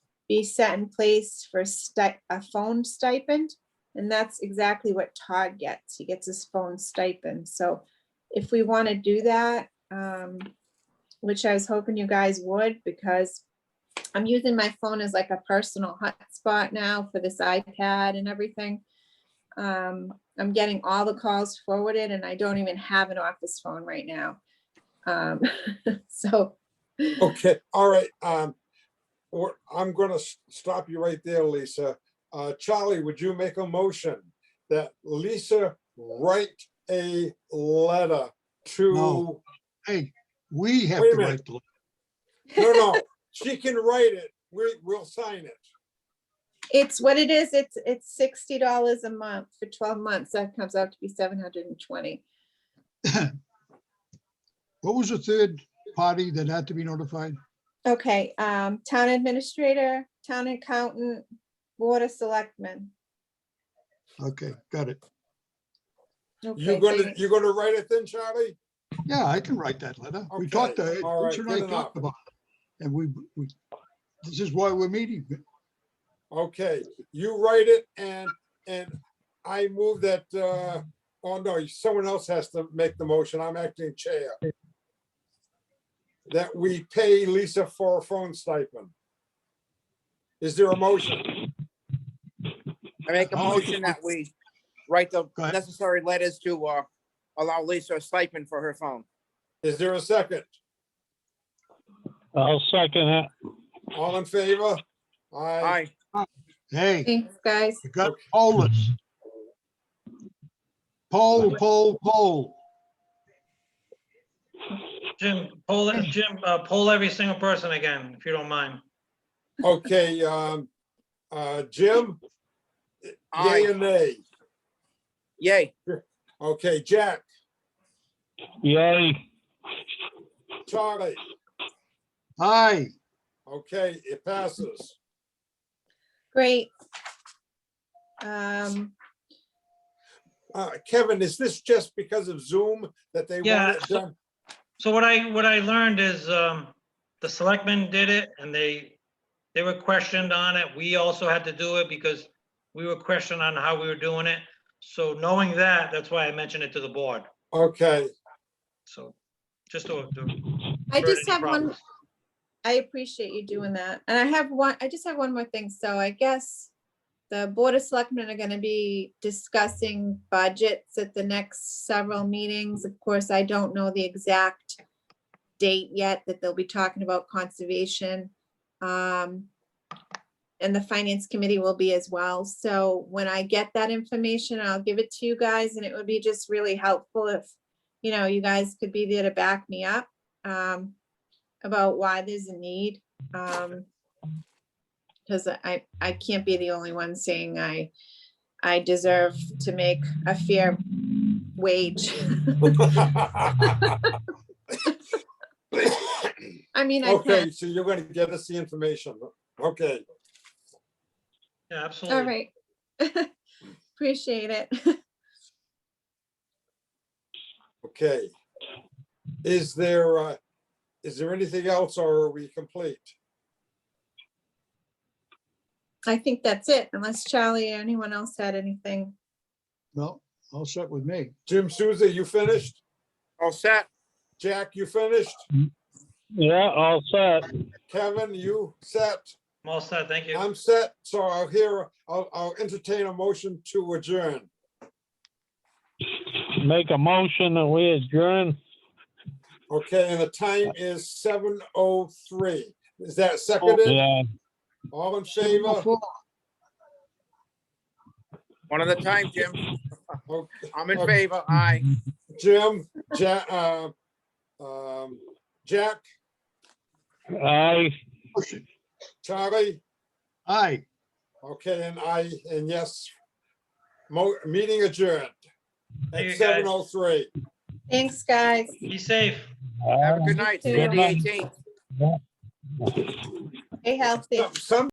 be set in place for sti- a phone stipend. And that's exactly what Todd gets. He gets his phone stipend. So if we want to do that, um, which I was hoping you guys would, because I'm using my phone as like a personal hotspot now for this iPad and everything. Um, I'm getting all the calls forwarded and I don't even have an office phone right now. Um, so Okay, all right. Um, we're, I'm gonna s- stop you right there, Lisa. Uh, Charlie, would you make a motion that Lisa write a letter to, no, No. Hey, we have Wait a to minute. write the, no, she can write it. We, we'll sign it. It's what it is. It's, it's sixty dollars a month for twelve months. That comes out to be seven hundred and twenty. what was the third party that had to be notified? Okay, um, town administrator, town accountant, board of selectmen. Okay, got it. You're Okay, so gonna, you're gonna write it then, Charlie? Yeah, I can write that letter. We Okay, talked, uh, all right, Rich and I good enough. talked about it. And we, we, this is why we're meeting. Okay, you write it and, and I move that, uh, oh no, someone else has to make the motion. I'm acting chair. That we pay Lisa for a phone stipend. Is there a motion? I make a I'll make a motion that we write the Go ahead. necessary letters to uh, allow Lisa a stipend for her phone. Is there a second? I'll second it. All in favor? Aye. Aye, Hey, Thanks, guys. you got pollers. Poll, poll, poll. Jim, poll, Jim, uh, poll every single person again, if you don't mind. Okay, um, uh, Jim? Yay aye, and nay? yay, Okay, Jack, Yay. Charlie, Aye, okay, it passes. Great. Um, Uh, Kevin, is this just because of Zoom that they Yeah, want it done? So what I, what I learned is, um, the selectmen did it and they, they were questioned on it. We also had to do it because we were questioned on how we were doing it. So knowing that, that's why I mentioned it to the board. Okay, So just to. to I avert just any have one, problems. I appreciate you doing that. And I have one, I just have one more thing. So I guess the Board of Selectmen are gonna be discussing budgets at the next several meetings. Of course, I don't know the exact date yet that they'll be talking about conservation. um, And the Finance Committee will be as well. So when I get that information, I'll give it to you guys and it would be just really helpful if, you know, you guys could be there to back me up um, about why there's a need. Um, because I, I can't be the only one saying I, I deserve to make a fair wage. I mean, I okay, can, so you're gonna get us the information. Okay, Yeah, absolutely. all right. Appreciate it. okay. Is there, uh, is there anything else or are we complete? I think that's it, unless Charlie or anyone else had anything. no, all set with me. Jim Souza, you finished? all set, Jack, you finished? Yeah, all set. Kevin, you set? I'm all set. Thank you. I'm set, so I'll hear, I'll, I'll entertain a motion to adjourn. Make a motion that we adjourn. Okay, and the time is seven oh three. Is that seconded? Yeah, All in favor? one at a time, Jim. Okay. I'm in Okay. favor, aye, Jim, Jack, uh, um, Jack, aye. Charlie, Aye, okay, and I, and yes. Mo, meeting adjourned Thank at you, guys. seven oh three. Thanks, guys. Be safe. have a good night, see you on the Good night. eighteenth. Stay healthy. Some